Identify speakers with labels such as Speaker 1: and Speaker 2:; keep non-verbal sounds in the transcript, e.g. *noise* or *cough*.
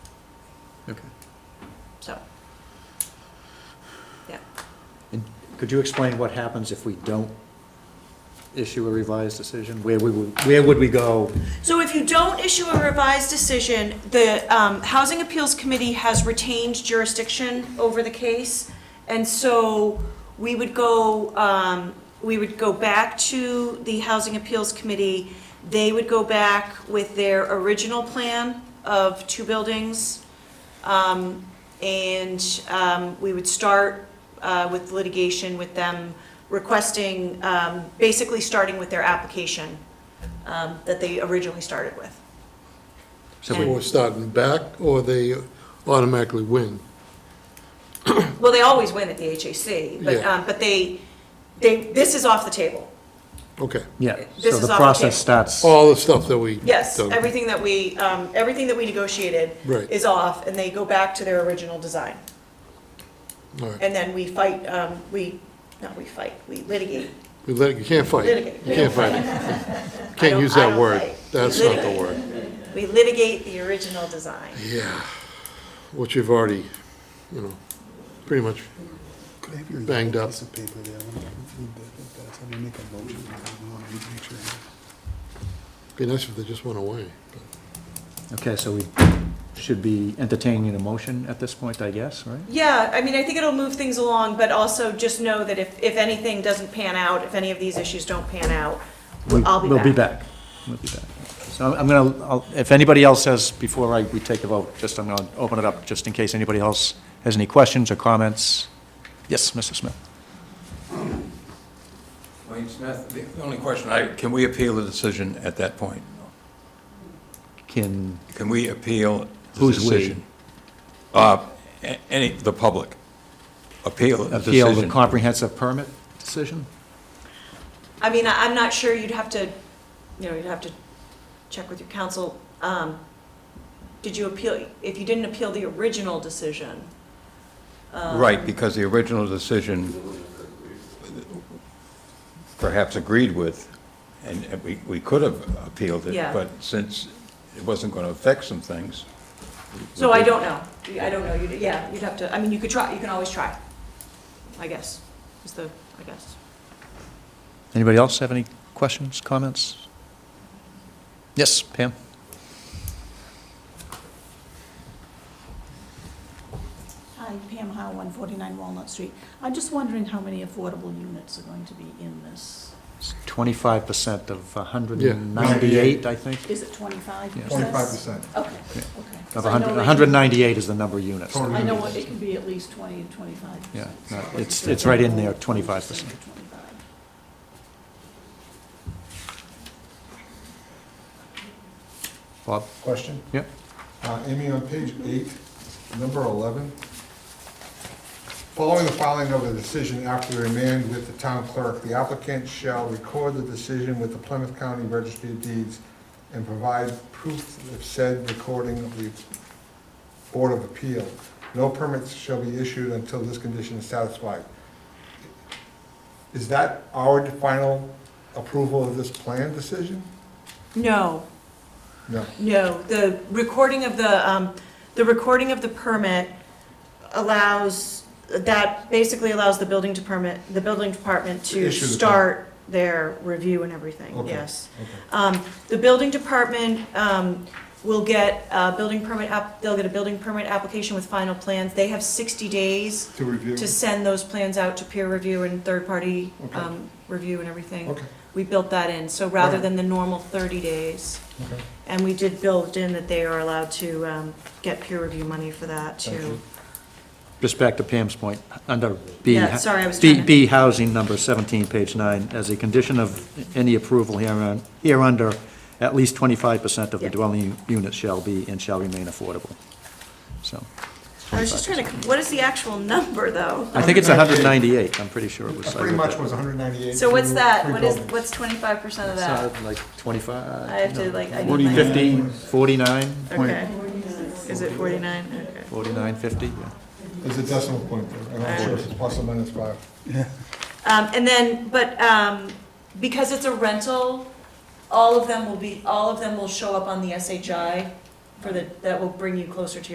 Speaker 1: Okay.
Speaker 2: so. Yeah,
Speaker 1: And could you explain what happens if we don't issue a revised decision? Where we would, where would we go?
Speaker 2: so if you don't issue a revised decision, the um, Housing Appeals Committee has retained jurisdiction over the case, and so we would go, um, we would go back to the Housing Appeals Committee, they would go back with their original plan of two buildings, Um, And um, we would start uh, with litigation with them requesting, um, basically starting with their application um, that they originally started with.
Speaker 1: So
Speaker 2: Yeah.
Speaker 1: we-
Speaker 3: Or starting back, or they automatically win.
Speaker 2: Well, they always win at the HAC, but,
Speaker 3: Yeah.
Speaker 2: um, but they, they, this is off the table.
Speaker 3: Okay.
Speaker 1: yeah,
Speaker 2: This
Speaker 1: so
Speaker 2: is off
Speaker 1: the
Speaker 2: the
Speaker 1: process
Speaker 2: table.
Speaker 1: starts.
Speaker 3: All the stuff that we.
Speaker 2: Yes,
Speaker 3: done.
Speaker 2: everything that we, um, everything that we negotiated
Speaker 3: Right.
Speaker 2: is off, and they go back to their original design.
Speaker 3: All right.
Speaker 2: And then we fight, um, we, not we fight, we litigate.
Speaker 3: We let, you can't fight.
Speaker 2: Litigate.
Speaker 3: You can't
Speaker 2: *laughs*
Speaker 3: fight.
Speaker 2: I don't-
Speaker 3: Can't use
Speaker 2: I
Speaker 3: that
Speaker 2: don't
Speaker 3: word.
Speaker 2: fight.
Speaker 3: That's not the
Speaker 2: Litigate.
Speaker 3: word.
Speaker 2: We litigate the original design.
Speaker 3: Yeah. Which you've already, you know, pretty much,
Speaker 4: Could I have your
Speaker 3: Banged
Speaker 4: yellow
Speaker 3: up.
Speaker 4: piece of paper there? I want to read that, if that's- I'm gonna make a motion. I want to make sure.
Speaker 3: be nice if they just went away.
Speaker 1: Okay, so we should be entertaining a motion at this point, I guess, right?
Speaker 2: Yeah, I mean, I think it'll move things along, but also just know that if, if anything doesn't pan out, if any of these issues don't pan out,
Speaker 1: We-
Speaker 2: I'll be back.
Speaker 1: We'll be back. We'll be back. So I'm gonna, I'll- if anybody else has, before I, we take the vote, just, I'm gonna open it up, just in case anybody else has any questions or comments. Yes, Mr. Smith?
Speaker 5: Wayne Smith, the only question, I, can we appeal the decision at that point?
Speaker 1: Can,
Speaker 5: Can we appeal the
Speaker 1: Who's we?
Speaker 5: decision? Uh, a- any, the public, appeal the
Speaker 1: appeal the
Speaker 5: decision.
Speaker 1: comprehensive permit decision?
Speaker 2: I mean, I- I'm not sure, you'd have to, you know, you'd have to check with your counsel. Um, Did you appeal, if you didn't appeal the original decision?
Speaker 5: Right, because the original decision perhaps agreed with, and and we, we could have appealed it,
Speaker 2: Yeah.
Speaker 5: but since it wasn't going to affect some things. we-
Speaker 2: So I don't know, I don't know, you'd, yeah, you'd have to, I mean, you could try, you can always try, I guess, is the, I guess.
Speaker 1: Anybody else have any questions, comments? Yes, Pam?
Speaker 6: Hi, Pam Howe, 149 Walnut Street. I'm just wondering how many affordable units are going to be in this?
Speaker 1: Twenty-five percent of hundred
Speaker 3: Yeah.
Speaker 1: and ninety-eight, I think.
Speaker 6: Is it 25?
Speaker 1: Yeah.
Speaker 7: Twenty-five percent.
Speaker 6: Okay, okay.
Speaker 1: Of
Speaker 6: So I know
Speaker 1: hundred,
Speaker 6: they-
Speaker 1: hundred and ninety-eight is the number of units.
Speaker 7: Total.
Speaker 6: I know it can be at least 20 to 25.
Speaker 1: Yeah, no, it's- it's right in there, 25%.
Speaker 6: 25.
Speaker 1: Bob?
Speaker 7: Question?
Speaker 1: Yep.
Speaker 7: Uh, Amy, on page eight, number 11, following the filing of the decision after remand with the town clerk, the applicant shall record the decision with the Plymouth County Registry of Deeds and provide proof of said recording of the Board of Appeal. No permits shall be issued until this condition is satisfied. Is that our final approval of this plan decision?
Speaker 2: No,
Speaker 7: No.
Speaker 2: No, the recording of the, um, the recording of the permit allows, that basically allows the building department, the building department to
Speaker 7: Issue the permit.
Speaker 2: start their review and everything,
Speaker 7: Okay.
Speaker 2: yes.
Speaker 7: Okay.
Speaker 2: Um, The building department um, will get a building permit, app- they'll get a building permit application with final plans. They have 60 days
Speaker 7: To review?
Speaker 2: to send those plans out to peer review and third-party um, review and everything.
Speaker 7: Okay,
Speaker 2: We built that in, so rather
Speaker 7: Alright.
Speaker 2: than the normal 30 days.
Speaker 7: okay.
Speaker 2: And we did build in that they are allowed to um, get peer review money for that,
Speaker 7: Thank
Speaker 2: too.
Speaker 7: you.
Speaker 1: Just back to Pam's point, under B.
Speaker 2: Yeah, sorry, I was
Speaker 1: B-
Speaker 2: trying to-
Speaker 1: B housing number 17, page 9, as a condition of any approval hereon, hereunder, at least 25% of the
Speaker 2: Yeah.
Speaker 1: dwelling units shall be and shall remain affordable. So,
Speaker 2: I was just trying to, what is the actual number, though?
Speaker 1: I think it's 198, I'm pretty sure it was.
Speaker 7: That
Speaker 1: I
Speaker 7: Pretty
Speaker 1: looked
Speaker 7: much
Speaker 1: at-
Speaker 7: was 198.
Speaker 2: So what's
Speaker 7: through
Speaker 2: that?
Speaker 7: three
Speaker 2: What is,
Speaker 7: buildings.
Speaker 2: what's 25% of that?
Speaker 1: It's, uh, Like 25?
Speaker 2: I have to,
Speaker 1: no,
Speaker 2: like, I need
Speaker 1: 40,
Speaker 2: my-
Speaker 1: 50, 49,
Speaker 7: uh,
Speaker 2: Okay. Is it 49? Okay.
Speaker 1: 49, 50, yeah.
Speaker 7: There's a decimal point there. I'm not sure if it's plus or minus five.
Speaker 2: Um, And then, but um, because it's a rental, all of them will be, all of them will show up on the SHI for the, that will bring you closer to